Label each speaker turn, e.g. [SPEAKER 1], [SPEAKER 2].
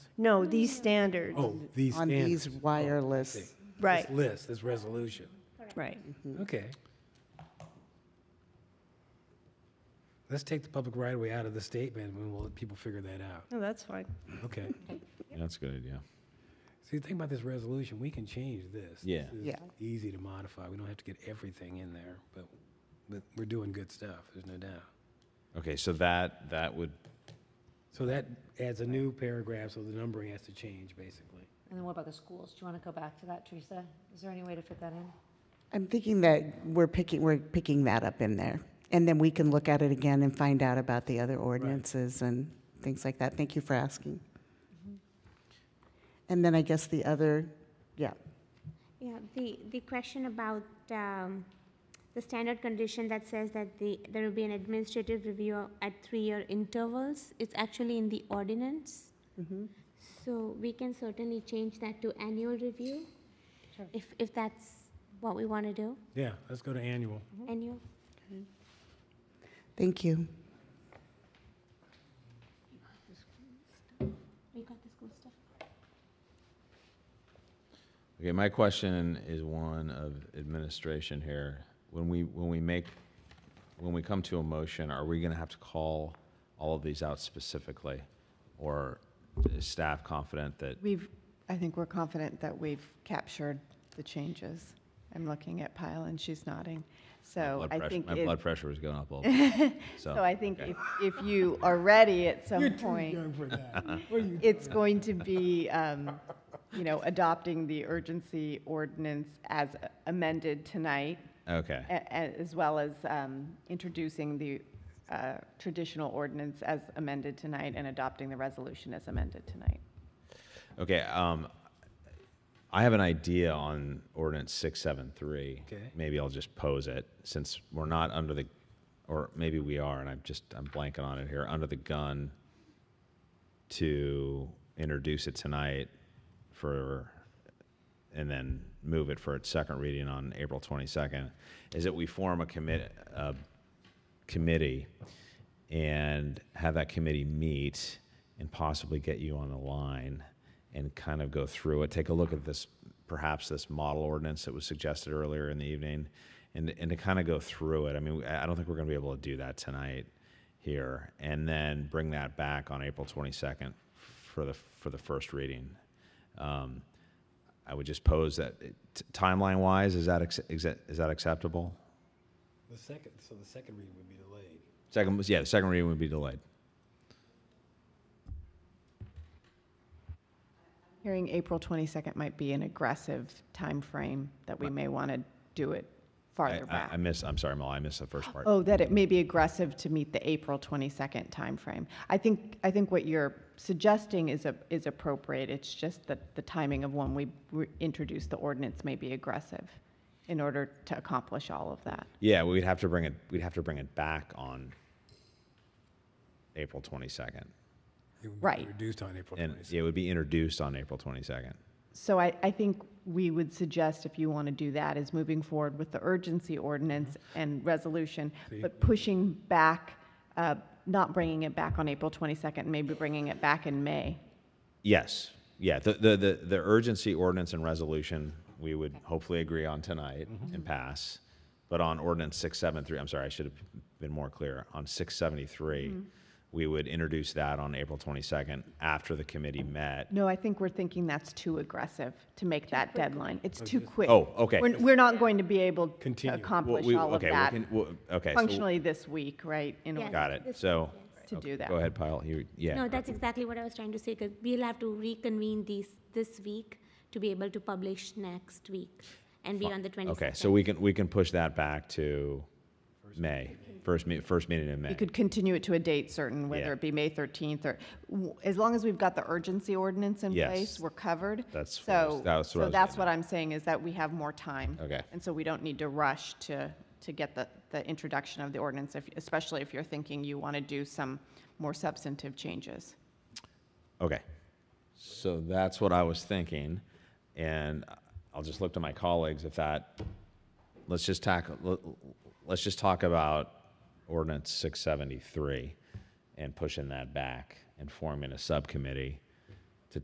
[SPEAKER 1] No, these standards.
[SPEAKER 2] Oh, these
[SPEAKER 3] on these
[SPEAKER 2] standards. Oh, I
[SPEAKER 3] wireless-
[SPEAKER 2] see. This
[SPEAKER 1] Right.
[SPEAKER 2] list, this resolution.
[SPEAKER 1] Right.
[SPEAKER 3] Mm-hmm.
[SPEAKER 2] Okay. Let's take the public right of way out of the statement and we'll let people figure that out.
[SPEAKER 1] No, that's fine.
[SPEAKER 2] Okay.
[SPEAKER 4] That's a good idea.
[SPEAKER 2] See, the thing about this resolution, we can change this.
[SPEAKER 4] Yeah.
[SPEAKER 2] This is
[SPEAKER 3] Yeah.
[SPEAKER 2] Easy to modify. We don't have to get everything in there, but, but we're doing good stuff, there's no doubt.
[SPEAKER 4] Okay, so that that would
[SPEAKER 2] So that adds a new paragraph, so the numbering has to change, basically.
[SPEAKER 5] And then what about the schools? Do you want to go back to that, Teresa? Is there any way to fit that in?
[SPEAKER 3] I'm thinking that we're picking, we're picking that up in there. And then we can look at it again and find out about the other ordinances and things like that. Thank you for asking. And then I guess the other, yeah,
[SPEAKER 6] Yeah, the, the question about um, the standard condition that says that the, there will be an administrative review at three-year intervals, it's actually in the ordinance. So we can certainly change that to annual review, if, if that's what we want to do,
[SPEAKER 2] Yeah, let's go to annual.
[SPEAKER 6] annual.
[SPEAKER 3] thank you.
[SPEAKER 6] We got the school stuff.
[SPEAKER 4] okay. My question is one of administration here. When we when we make when we come to a motion, are we going to have to call all of these out specifically, or is staff confident that
[SPEAKER 7] We've, I think we're confident that we've captured the changes. I'm looking at Pyle and she's nodding. So
[SPEAKER 4] blood
[SPEAKER 7] I
[SPEAKER 4] pressure-
[SPEAKER 7] think,
[SPEAKER 4] my
[SPEAKER 7] if-
[SPEAKER 4] blood pressure was going up a little? bit. so,
[SPEAKER 7] so I think
[SPEAKER 4] okay.
[SPEAKER 7] if, if you are ready at some point,
[SPEAKER 2] for that.
[SPEAKER 7] it's going to be, um, you know, adopting the urgency ordinance as amended tonight,
[SPEAKER 4] okay.
[SPEAKER 7] a- a- as well as um, introducing the uh, traditional ordinance as amended tonight and adopting the resolution as amended tonight.
[SPEAKER 4] Okay, um, I have an idea on ordinance six seven three.
[SPEAKER 2] Okay.
[SPEAKER 4] Maybe I'll just pose it, since we're not under the, or maybe we are, and I'm just, I'm blanking on it here, under the gun to introduce it tonight for, and then move it for its second reading on April twenty-second, is that we form a commit, a committee and have that committee meet and possibly get you on the line and kind of go through it, take a look at this, perhaps this model ordinance that was suggested earlier in the evening, and, and to kind of go through it. I mean, I I don't think we're going to be able to do that tonight here, and then bring that back on April 22nd for the, for the first reading. Um, I would just pose that, t- timeline-wise, is that, acce- is that- is that acceptable?
[SPEAKER 2] The second, so the second reading would be delayed.
[SPEAKER 4] Second, was- yeah, the second reading would be delayed.
[SPEAKER 7] Hearing April 22nd might be an aggressive timeframe that we may want to do it
[SPEAKER 4] I-
[SPEAKER 7] farther
[SPEAKER 4] I- I
[SPEAKER 7] back.
[SPEAKER 4] miss, I'm sorry, Mel, I missed the first part.
[SPEAKER 7] Oh, that it may be aggressive to meet the April 22nd timeframe. I think, I think what you're suggesting is, a- is appropriate. It's just that the timing of when we re- introduce the ordinance may be aggressive in order to accomplish all of that.
[SPEAKER 4] Yeah, we'd have to bring it, we'd have to bring it back on April 22nd.
[SPEAKER 2] It would be
[SPEAKER 7] Right.
[SPEAKER 2] Reduced on April
[SPEAKER 4] And
[SPEAKER 2] 22nd.
[SPEAKER 4] it would be introduced on April 22nd.
[SPEAKER 7] So I, I think we would suggest, if you want to do that, is moving forward with the urgency ordinance and resolution, but pushing back, uh, not bringing it back on April 22nd, maybe bringing it back in May.
[SPEAKER 4] Yes, yeah, the, the, the the urgency ordinance and resolution, we would hopefully agree on tonight and pass. But on ordinance 673, I'm sorry, I should have been more clear, on 673, we would introduce that on April 22nd after the committee met.
[SPEAKER 7] No, I think we're thinking that's too aggressive to make that deadline. It's too quick.
[SPEAKER 4] Oh, okay.
[SPEAKER 7] We're, we're not going to be able to
[SPEAKER 2] Continue. Well,
[SPEAKER 4] Well,
[SPEAKER 7] accomplish
[SPEAKER 4] we-
[SPEAKER 7] all of
[SPEAKER 4] okay, we
[SPEAKER 7] that
[SPEAKER 4] can- well, Okay. so-
[SPEAKER 7] functionally this week, right? in
[SPEAKER 6] Yeah.
[SPEAKER 7] order
[SPEAKER 4] Got it, so.
[SPEAKER 7] To
[SPEAKER 4] okay,
[SPEAKER 7] do that.
[SPEAKER 4] Go ahead, Pyle, you, yeah.
[SPEAKER 6] No, that's exactly what I was trying to say, because we'll have to reconvene these, this week to be able to publish next week and be on the 22nd.
[SPEAKER 4] Okay, so we can, we can push that back to May, first, me- first meeting in
[SPEAKER 7] We
[SPEAKER 4] May.
[SPEAKER 7] could continue it to a date certain,
[SPEAKER 4] Yeah.
[SPEAKER 7] whether it be May 13th or, w- as long as we've got the urgency ordinance in
[SPEAKER 4] Yes.
[SPEAKER 7] place, we're covered.
[SPEAKER 4] That's what I was-
[SPEAKER 7] So,
[SPEAKER 4] that's what I
[SPEAKER 7] so
[SPEAKER 4] was
[SPEAKER 7] that's
[SPEAKER 4] getting
[SPEAKER 7] what I'm saying is that we have more time.
[SPEAKER 4] Okay.
[SPEAKER 7] And so we don't need to rush to, to get the, the introduction of the ordinance, if- especially if you're thinking you want to do some more substantive changes.
[SPEAKER 4] Okay, so that's what I was thinking, and I'll just look to my colleagues if that, let's just tackle, let's just talk about ordinance six seventy-three and pushing that back and forming a subcommittee